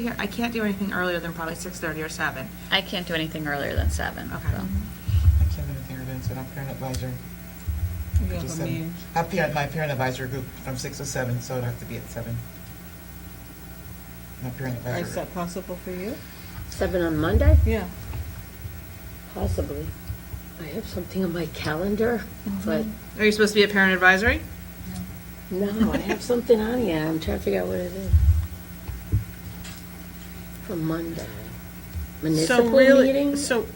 Here, I can't do anything earlier than probably six thirty or seven. I can't do anything earlier than seven. Okay. so. Mm-hmm. I can't do anything earlier than seven. I'm parent advisory. Mm-hmm. You have Just a seven. meeting. I parent, my parent advisory group from six to seven, so it'd have to be at seven. My parent advisory. Is that possible for you? Seven on Monday? Yeah. Possibly. I have something on my calendar, Mm-hmm. Mm-hmm. but Are you supposed to be at parent advisory? no, I have something on here. I'm trying to figure out what it is. For Monday. So Municipal really, meeting? So,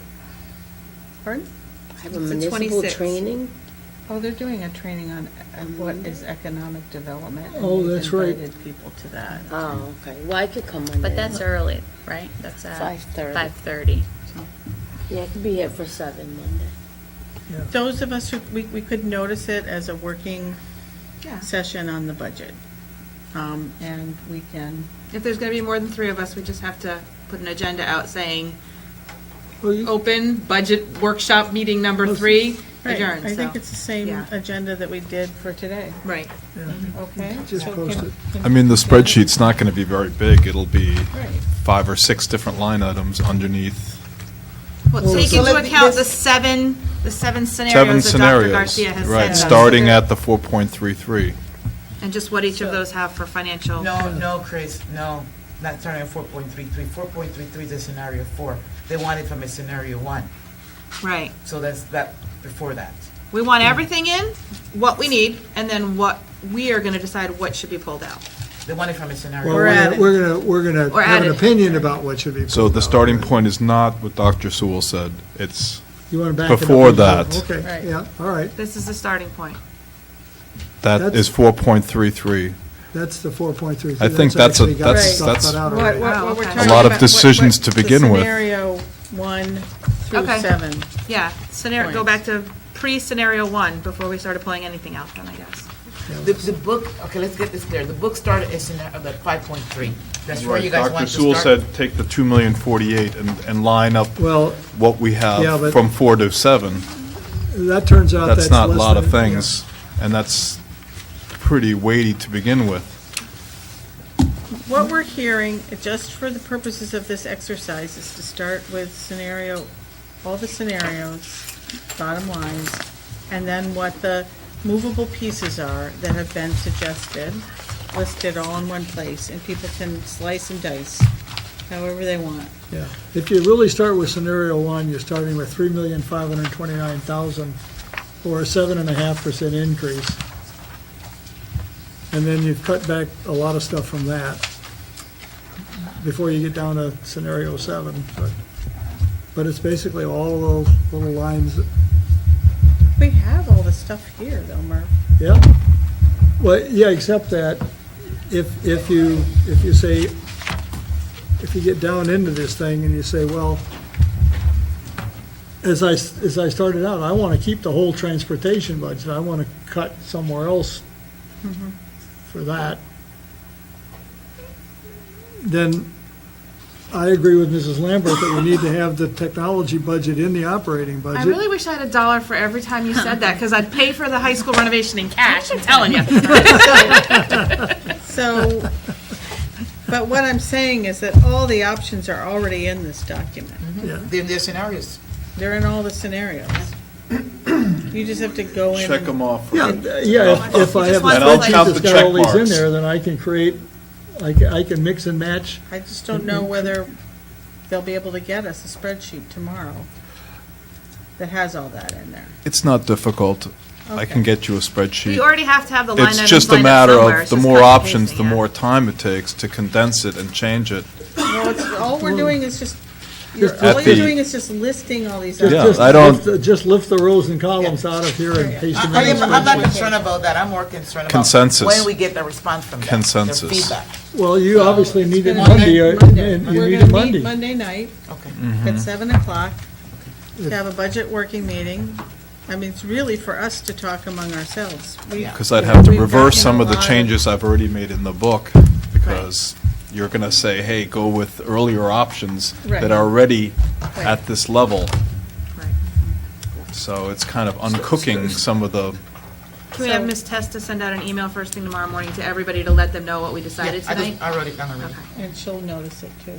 pardon? I have a it's the municipal 26th. training. Mm-hmm. Oh, they're doing a training on uh, what is economic development. and Oh, we've that's right. Invited people to that. Oh, okay. Well, I could come Monday. But that's early, right? That's at. 5:30. Five thirty. Yeah, I could be here for seven Monday. Those of us who, we, we could notice it as a working Yeah. session on the budget. Um, And we can, If there's gonna be more than three of us, we just have to put an agenda out saying, Well, you- open budget workshop meeting number three, Oh, Right, adjourn, I think so- it's the same yeah. agenda that we did for today. Right. okay? Just so post can- it. can- I mean, the spreadsheet's not going to be very big. It'll be Right. five or six different line items underneath. Well, take so into let me- account the this- seven, the seven Seven scenarios that Dr. scenarios, Garcia has right, said. starting at the 4.33. And just what each of those have for financial. No, no, Chris, no, not starting at four point three three. Four point three three is a scenario four. They want it from a scenario one, Right. so that's that, before that. We want everything in, what we need, and then what, we are gonna decide what should be pulled out. They want it from a scenario. Well, one. gonna- We're gonna, we're gonna Or have an added. opinion about what should be. So pulled the out. starting point is not what Dr. Sewell said. It's, You wanna back it up? before and that. go, Right. Okay, yeah, all right. This is the starting point. that That's- is 4.33. That's the four point three. I think that's a- that's- that's- What, what- Oh, Wow, what we're okay. A talking lot about- of what- decisions what to the begin with. Scenario one through Okay. seven. Yeah, scenario, go back Points. to pre-scenario one before we started pulling anything out then, I guess. The, the book, okay, let's get this clear. The book started at scenario, the five point three. That's where you guys want Dr. to Sewell start. said, take the 2,048,000 and, and line up Well, what we Yeah, have but- from 4 to 7. that turns out that's That's not a less lot of than- yeah. things, and that's pretty weighty to begin with. What we're hearing, just for the purposes of this exercise, is to start with scenario, all the scenarios, bottom lines, and then what the movable pieces are that have been suggested, listed all in one place, and people can slice and dice however they want. Yeah, if you really start with scenario one, you're starting with three million five hundred twenty-nine thousand, or a seven and a half percent increase. And then you've cut back a lot of stuff from that before you get down to scenario seven, but, but it's basically all those little lines, We have all the stuff here, though, Murph. yeah. Well, yeah, except that if, if you, if you say, if you get down into this thing and you say, well, as I, s- as I started out, I want to keep the whole transportation budget, I want to cut somewhere else Mm-hmm. for that, then I agree with Mrs. Lambert that we need to have the technology budget in the operating budget. I really wish I had a dollar for every time you said that, because I'd pay for the high school renovation in cash, I'm telling you. So, but what I'm saying is that all the options are already in this document. Yeah. Then there's scenarios. They're in all the scenarios. You just have to go in Check and them off. Yeah, th- yeah, if- if I have a And I'll spreadsheet count that's the got all check these in marks. there, then I can create, I can, I can mix and match. I just don't know whether they'll be able to get us a spreadsheet tomorrow that has all that in there. It's not difficult. I can Okay. get you a You spreadsheet. already have to have the line items It's just a lined up matter somewhere, of, it's the just more cut and options, the pasting, yeah. more time it takes to condense it and change it. Well, it's, all we're doing is just, you're, Just- all At you're the- doing is just listing all these. Just- Yeah, just I don't- lift- Just lift the rows and columns out of here and paste them I in. am, I'm the not concerned about that. I'm more concerned about. Consensus. When we get the response from them. their Consensus. Feedback, spreadsheet. Well, you obviously need it It's gonna Monday, be uh, Monday. and you We're need gonna it meet Monday. Monday night okay. Mhm. at seven o'clock to have a budget working meeting. I mean, it's really for us to talk among ourselves. We- Because I'd have to We've reverse gotten some a of the lot of- changes I've already made in the book, because you're going to say, hey, go with earlier options Right. that are already Right. at this level. Right. So it's kind of uncooking some of the Can we have So- Ms. Testa send out an email first thing tomorrow morning to everybody to let them know what we decided Yeah, I just- tonight? I wrote it down already. Okay. And she'll notice it too.